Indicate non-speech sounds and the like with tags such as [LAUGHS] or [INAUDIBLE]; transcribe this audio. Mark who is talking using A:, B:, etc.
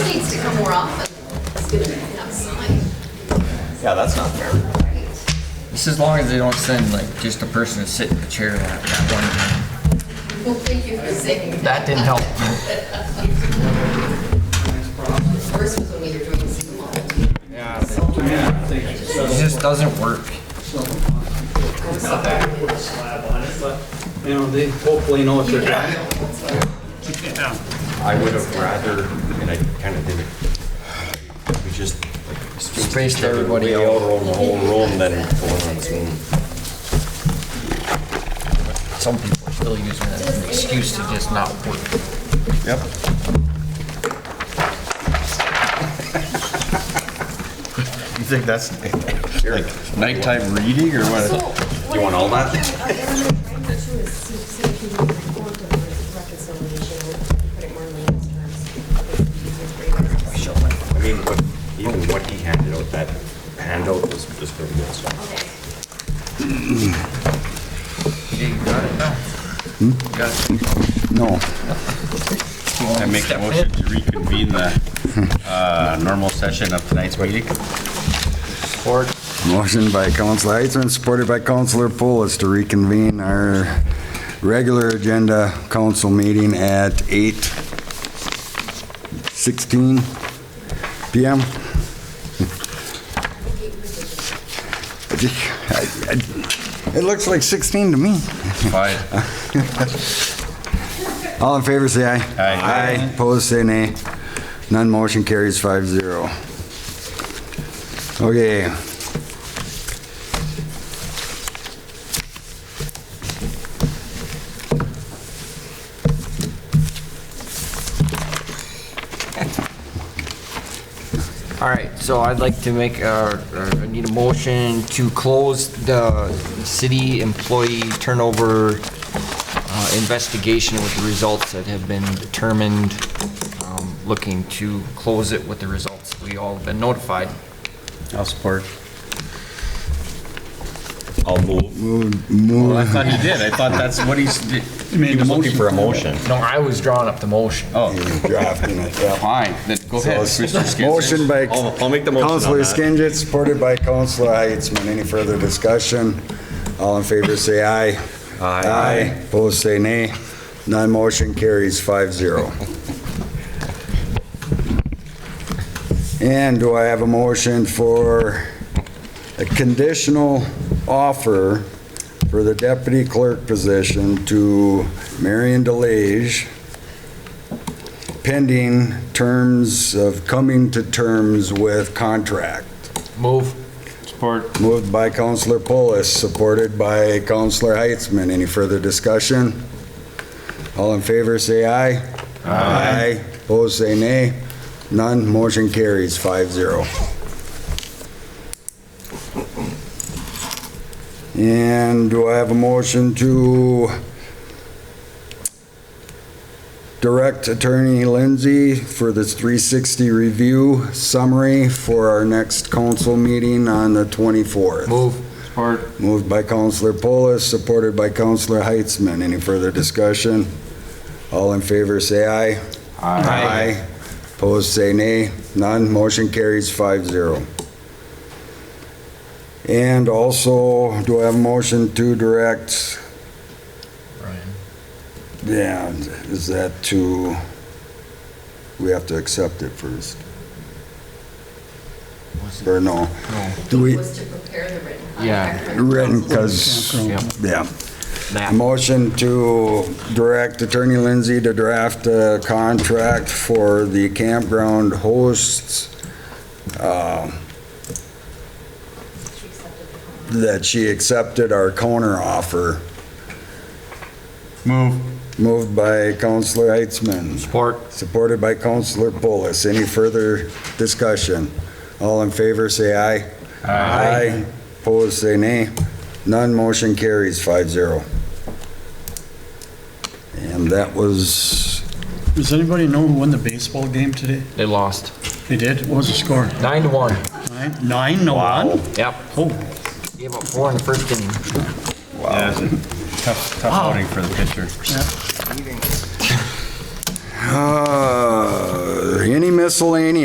A: more often. It's good to be outside.
B: Yeah, that's not fair.
C: Just as long as they don't send like just a person to sit in the chair that, that one time.
A: Well, thank you for saying that.
C: That didn't help.
A: First was when we were doing Zoom all the time.
C: It just doesn't work.
D: put a slab on it, but, you know, they hopefully know what they're doing.
B: I would have rather, and I kind of did it, we just like, spaced
C: Spaced
B: each other
C: everybody
B: way
C: out.
B: out around the whole room than going on Zoom.
C: Some people are still using that as an excuse to just not work.
B: Yep.
E: [LAUGHS] You think that's like nighttime reading or
F: So,
E: what?
F: what
B: You want all that?
F: I think I'm- I'm gonna try to do is see- see if you can report the reconciliation, put it more in layman's terms. It would be easier for you guys to see.
B: I mean, what, even what he handed out, that handout was just pretty good, so.
F: Okay.
C: Yeah, you got it now. You got it.
E: No.
C: You wanna
E: I make a
C: step
E: motion
C: in?
E: to reconvene the uh, normal session of tonight's meeting.
G: Motion by Councilor Heitzman, supported by Councilor Pulis to reconvene our regular agenda council meeting at 8:16 PM. It looks like 16 to me.
E: Fine.
G: All in favor, say aye.
E: Aye.
G: Aye, opposed, say nay. None motion carries five zero. Okay.
C: All right, so I'd like to make, uh, uh, I need a motion to close the city employee turnover uh, investigation with the results that have been determined. Um, Looking to close it with the results we all have been notified.
E: I'll support.
B: I'll move.
E: Well, I thought he did. I thought that's what he's, did. he was looking for a motion.
C: No, I was drawing up the motion.
E: Oh,
G: [LAUGHS] Drafting it, yeah.
E: fine, then go ahead, Mr.
G: [LAUGHS]
E: Skidmore.
G: Motion by
B: I'll, I'll make the motion on
G: Councilor
B: that.
G: Skinsich, supported by Councilor Heitzman. Any further discussion? All in favor, say aye.
B: Aye.
G: Opposed, say nay. None motion carries five zero. And do I have a motion for a conditional offer for the deputy clerk position to Marion DeLage pending terms of coming to terms with contract.
C: Move.
G: Moved by Counselor Polis, supported by Counselor Heitzman. Any further discussion? All in favor, say aye. Aye. Opposed, say nay. None, motion carries 5-0. And do I have a motion to direct Attorney Lindsay for the 360 review summary for our next council meeting on the 24th?
C: Move.
G: Moved by Counselor Polis, supported by Counselor Heitzman. Any further discussion? All in favor, say aye. Aye. Opposed, say nay. None, motion carries 5-0. And also, do I have a motion to direct? Ryan. Yeah, is that to, we have to accept it first? Or no? Do
A: It
G: we,
A: was to prepare the written
C: Yeah.
A: contract. for the
G: written,
A: council.
G: because,
C: Yep.
G: yeah.
C: Matt.
G: A Motion to direct Attorney Lindsay to draft a contract for the campground hosts um,
F: She accepted the comment.
G: that she accepted our counter offer.
E: Move.
G: Moved by Counselor Heitzman,
C: Support.
G: supported by Counselor Polis. Any further discussion? All in favor, say aye. Aye. Opposed, say nay. None, motion carries 5-0. And that was
H: Does anybody know who won the baseball game today?
C: They lost.
H: They did? What was the score?
C: Nine to one.
H: Nine, nine to one?
C: Yep.
H: Oh,
C: Gave up four in the first inning.
E: Wow. Tough, tough voting for the pitcher.
G: Uh, Any miscellaneous